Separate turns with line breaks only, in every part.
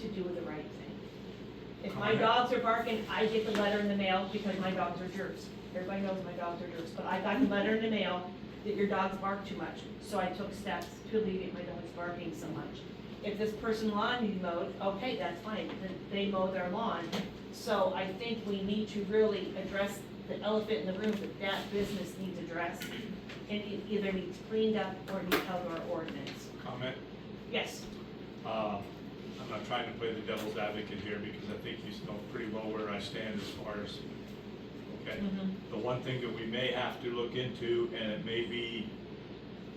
to do the right thing. If my dogs are barking, I get the letter in the mail because my dogs are jerks. Everybody knows my dogs are jerks, but I got the letter in the mail that your dogs bark too much, so I took steps to alleviate my dogs barking so much. If this person lawn needs mowed, okay, that's fine, then they mow their lawn. So I think we need to really address the elephant in the room that that business needs addressed and it either needs cleaned up or needs out of our ordinance.
comment.
Yes,
Uh, I'm not trying to play the devil's advocate here because I think you know pretty well where I stand as far as, okay?
Mhm.
The one thing that we may have to look into, and it may be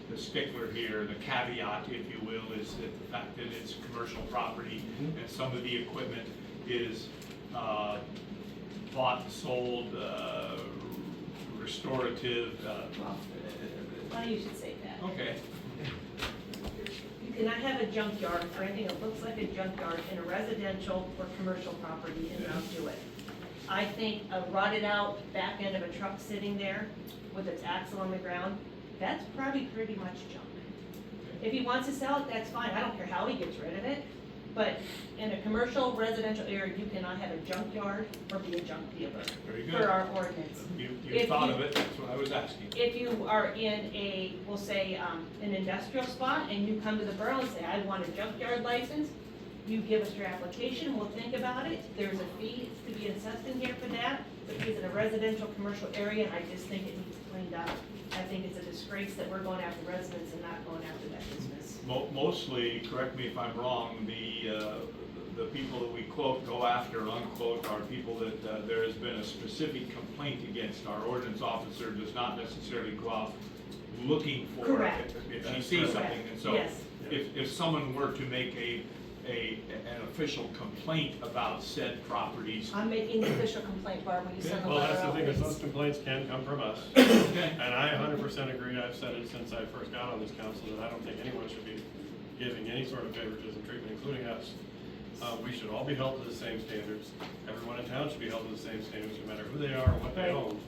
the stickler here, the caveat, if you will, is that the fact that it's commercial property and some of the equipment is uh, bought, sold, uh, restorative, uh,
well, funny you should say that.
okay,
You cannot have a junkyard or anything that looks like a junkyard in a residential or commercial property and not do it. I think a rotted out back end of a truck sitting there with its axle on the ground, that's probably pretty much junk. If he wants to sell it, that's fine, I don't care how he gets rid of it, but in a commercial residential area, you cannot have a junkyard or be a junk dealer
very
for
good.
our ordinance.
You,
If
you thought
you-
of it, that's what I was asking.
If you are in a, we'll say, um, an industrial spot and you come to the borough and say, I want a junkyard license, you give us your application, we'll think about it. There's a fee to be assessed in here for that, but it's in a residential, commercial area, and I just think it needs cleaned up. I think it's a disgrace that we're going after residents and not going after that business.
Mo- Mostly, correct me if I'm wrong, the, uh, the people that we quote, go after, unquote, are people that uh, there has been a specific complaint against. Our ordinance officer does not necessarily go out looking for. it
Correct.
If she sees something, and so
Yes.
if, if someone were to make a, a, an official complaint about said properties,
I'm making the official complaint, Barb, when you send the
Well,
letter
that's the
out.
thing, is those
please.
complaints can come from us.
okay,
And I hundred percent agree, I've said it since I first got on this council, that I don't think anyone should be giving any sort of favoritism treatment, including us. Uh, we should all be held to the same standards, everyone in town should be held to the same standards, no matter who they are or what they
Right.
own.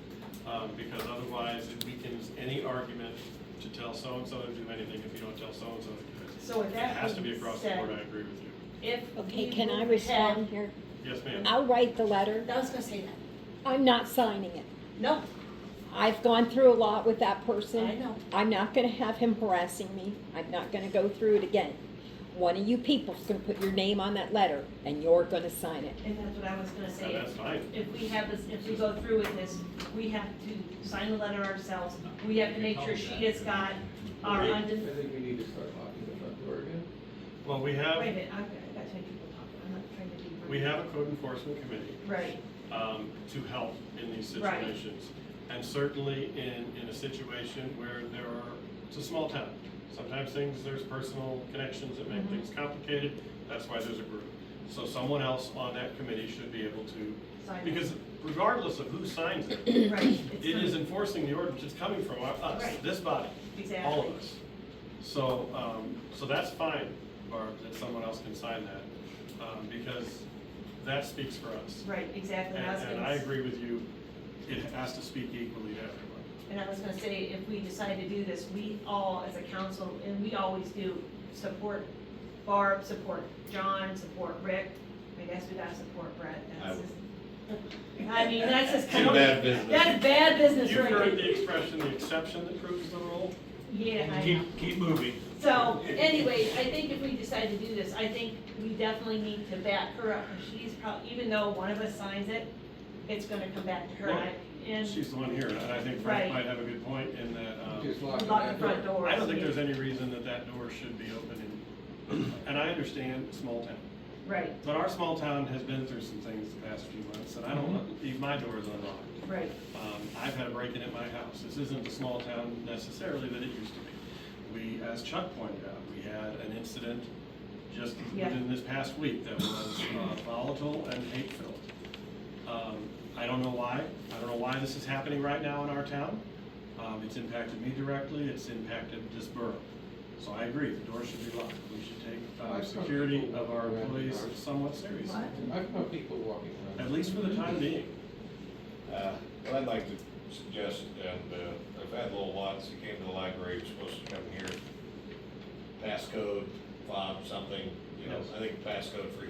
Um, because otherwise, it weakens any argument to tell so-and-so to do anything if you don't tell so-and-so to do
So
it.
with
It
that
has to be
being
across the
said-
board, I agree with you.
If
Okay,
we
can I
would
respond here?
Yes, ma'am.
I'll write the letter.
have- I was gonna say that.
I'm not signing it.
No,
I've gone through a lot with that
I
person.
know.
I'm not gonna have him harassing me. I'm not gonna go through it again. One of you people's gonna put your name on that letter and you're gonna sign it.
And that's what I was gonna
No,
say.
that's fine.
if we have this, if we go through with this, we have to sign the letter ourselves. We have to make sure she has got our
I
undef-
think we need to start locking the front door again.
Well, we
wait a
have,
minute, I've got, I've got too many people talking, I'm not trying to be. rude.
we have a code enforcement committee.
Right,
um, to help in these
Right.
situations. And certainly in, in a situation where there are, it's a small town. Sometimes things, there's personal connections that make
Mhm.
things complicated, that's why there's a group. So someone else on that committee should be able to,
sign.
because regardless of who signs it,
it. Right.
it
it's
is
coming.
enforcing the ordinance, it's coming from our- us,
Right.
this body,
Exactly.
all of us. So, um, so that's fine, Barb, that someone else can sign that, um, because that speaks for us.
Right, exactly. I was
And, and
gonna
I
s-
agree with you, it has to speak equally to everyone.
And I was gonna say, if we decide to do this, we all, as a council, and we always do, support Barb, support John, support Rick. I guess we gotta support Brett.
I
That's
would.
just- I mean, that's just.
Too bad business.
That's bad business
You've
right there.
heard the expression, the exception that proves the rule.
Yeah, I know.
keep, keep moving.
So anyway, I think if we decide to do this, I think we definitely need to back her up. and She's probably, even though one of us signs it, it's gonna come back to her. and I- And
She's the one here, and I think
Right.
Frank might have a good point in that, um,
Just lock
Uh, lock the
that
front
door.
door.
I don't think there's any reason that that door should be open in, and I understand small town.
Right,
But our small town has been through some things the past few months, and I
Mm-hmm.
don't want- leave my doors unlocked.
right.
Um, I've had a break-in at my house. This isn't the small town necessarily that it used to be. We, as Chuck pointed out, we had an incident just
Yeah.
within this past week that was uh, volatile and hate-filled. Um, I don't know why. I don't know why this is happening right now in our town. Um, It's impacted me directly. It's impacted this borough. So I agree, the door should be locked. We should take uh,
I've heard
security
people
of our
around the
employees
yard.
somewhat seriously,
I've got people walking around.
at least for the time being.
Uh, What I'd like to suggest, and uh, I've had little lots that came to the library, was supposed to come here, passcode, fob, something, you know,
Yes.
I think passcode for